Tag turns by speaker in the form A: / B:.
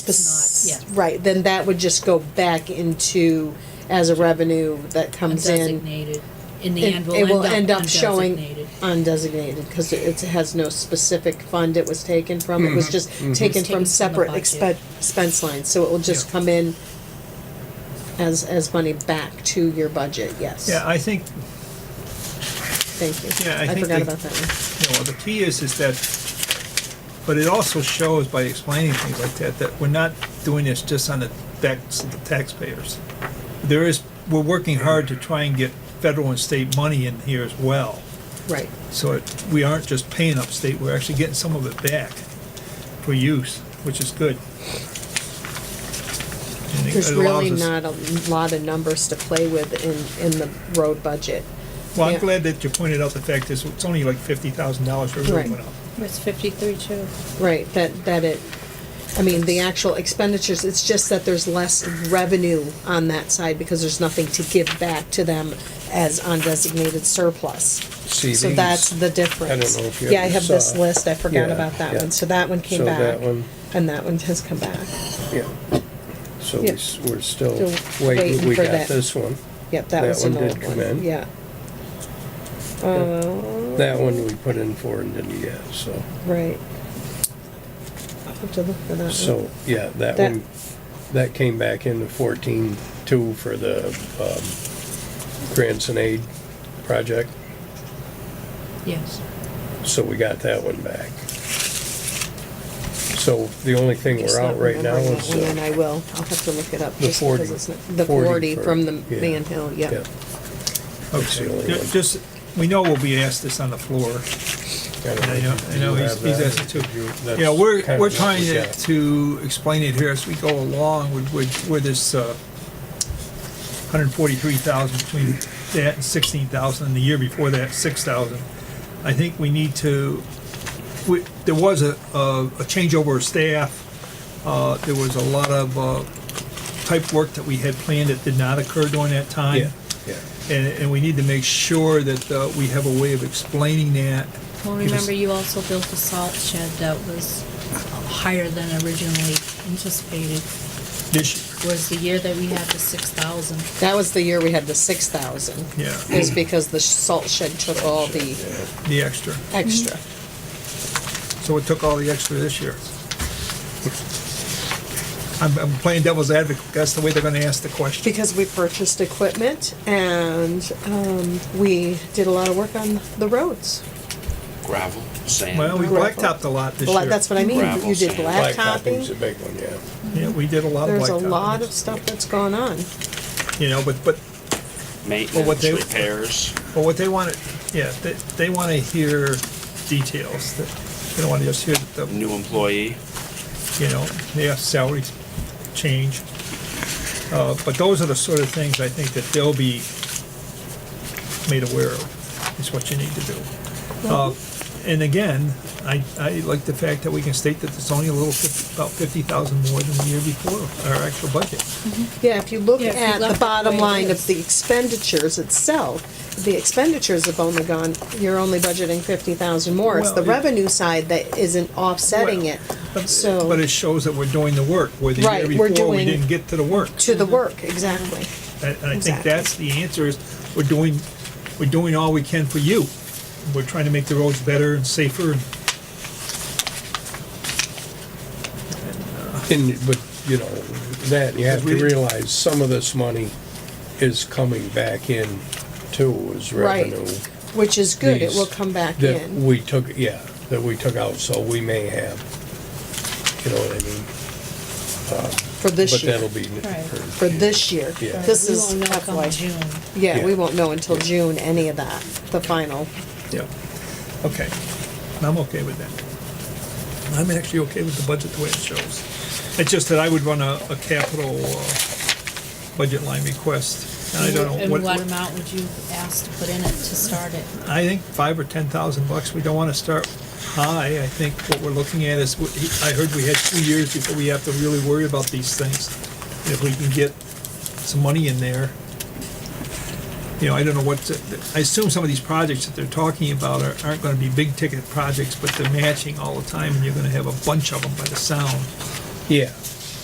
A: It's not, yeah.
B: Right, then that would just go back into, as a revenue that comes in.
A: Undesignated, in the
B: It-
A: end,
B: It
A: will end up
B: showing
A: undesignated.
B: Undesignated, because it it has no specific fund it was taken from, it was
C: Mm-hmm.
B: just taken
A: taken from
B: from
A: the
B: separate
A: budget.
B: expen- expense lines, so it will just
C: Yeah.
B: come in as, as money back to your budget, yes.
C: Yeah, I think,
B: Thank you.
C: Yeah, I think
B: forgot
C: the-
B: about that one.
C: you know, the key is, is that, but it also shows by explaining things like that, that we're not doing this just on the backs of the taxpayers. There is, we're working hard to try and get federal and state money in here as well.
B: Right,
C: So it, we aren't just paying upstate, we're actually getting some of it back for use, which is good. And it
B: there's
C: allows
B: really
C: us-
B: not a lot of numbers to play with in, in the road budget.
C: Well, I'm
B: yeah.
C: glad that you pointed out the fact is, it's only like fifty thousand dollars for
B: Right.
C: everyone went up.
D: It's fifty-three too.
B: Right, that, that it, I mean, the actual expenditures, it's just that there's less revenue on that side because there's nothing to give back to them as undesignated surplus. So
E: CDs.
B: that's the difference.
E: I don't know if you
B: Yeah, I
E: ever
B: have this
E: saw.
B: list, I forgot
E: Yeah,
B: about that
E: yeah.
B: one, so that one came
E: So
B: back.
E: that one-
B: And that one has come back,
E: Yeah. So we s- we're still
B: Still waiting
E: waiting, we
B: for
E: got
B: that.
E: this one.
B: yep, that
E: That
B: was an
E: one did
B: old
E: come
B: one,
E: in.
B: yeah.
E: That one we put in for and didn't get, so,
B: Right. I'll have to look for that one.
E: so, yeah, that
B: That-
E: one, that came back into fourteen two for the, um, grants and aid project,
A: Yes.
E: so we got that one back. So the only thing
B: Just
E: we're out
B: not
E: right now
B: remembering
E: is,
B: that one, And
E: uh,
B: I will, I'll have to look it up.
E: the
B: just
E: 40,
B: because it's not- The
E: 40
B: forty
E: for-
B: from the
E: yeah.
B: Van Hill,
E: yeah,
B: yep.
E: That's the only
C: Okay,
E: one.
C: ju- just, we know we'll be asked this on the floor, and I know, I know he's, he's asked it too.
E: That's
C: You know, we're,
E: kind of
C: we're
E: what
C: trying
E: we
C: to,
E: got.
C: to explain it here as we go along with, with, with this, uh, hundred and forty-three thousand between that and sixteen thousand, and the year before that, six thousand. I think we need to, we, there was a, a, a changeover of staff, uh, there was a lot of, uh, type work that we had planned that did not occur during that time.
E: Yeah, yeah.
C: And, and we need to make sure that uh, we have a way of explaining that.
D: Well, remember, you also built a salt shed that was higher than originally anticipated.
C: This,
D: Was the year that we had the six thousand.
B: That was the year we had the six thousand.
C: yeah,
B: Is because the salt shed took all the
C: the extra.
B: extra.
C: So it took all the extra this year. I'm, I'm playing devil's advocate. That's the way they're going to ask the question.
B: Because we purchased equipment and, um, we did a lot of work on the roads.
F: gravel, sand.
C: Well, we
B: Gravel.
C: blacktopped a lot this
B: Bla-
C: year.
B: That's what I mean,
F: Gravel
B: you did
F: sand.
E: Blacktopping's a
B: blacktopping,
E: big one, yeah.
C: Yeah, we did a lot of blacktopping.
B: there's a lot of stuff that's gone on.
C: You know, but, but Well, what
F: Maintenance,
C: they-
F: repairs.
C: Well, what they want, to, yeah, they, they want to hear details. That They don't want to just hear the,
F: New employee.
C: you know, yeah, salaries change. Uh, but those are the sort of things I think that they'll be made aware of, is what you need to do. Uh, and again, I, I like the fact that we can state that it's only a little, 50 about fifty thousand more than the year before, our actual budget.
B: Yeah, if you look
D: Yeah, if you
B: at
D: left
B: the
D: it the
B: bottom
D: way it
B: line of
D: is.
B: the expenditures itself, the expenditures have only gone, you're only budgeting fifty thousand more. It's
C: Well,
B: the
C: it-
B: revenue side that isn't offsetting
C: Well,
B: it.
C: But-
B: So-
C: Uh, But it shows that we're doing the work, where the year
B: Right, we're
C: before, we
B: doing-
C: didn't get to the work.
B: To the work, exactly.
C: And and I think
B: Exactly.
C: that's the answer is, we're doing, we're doing all we can for you. We're trying to make the roads better and safer. and-
E: And, but, you know, that, you have to
C: Because we-
E: realize some of this money is coming back in too, as
B: Right.
E: revenue.
B: Which is good, it
E: These-
B: will come back
E: That
B: in.
E: we took, yeah, that we took out, so we may have, you know what I mean?
B: For this year,
E: But that'll be.
D: Right.
B: for this year.
E: Yeah.
B: This
D: We
B: is
D: won't know come
B: FY.
D: June.
B: Yeah, we
E: Yeah.
B: won't know until June, any of that, the final.
C: Yeah, okay. And I'm okay with that. I'm actually okay with the budget the way it shows. It's just that I would run a, a capital, uh, budget line request. And I don't know
D: And
C: what,
D: what amount would you ask to put in it to start it?
C: I think five or ten thousand bucks, we don't wanna start high. I think what we're looking at is, what- I heard we had two years before we have to really worry about these things. And If we can get some money in there, you know, I don't know what, to- I assume some of these projects that they're talking about are- aren't gonna be big ticket projects, but they're matching all the time and you're gonna have a bunch of them by the sound.
E: Yeah,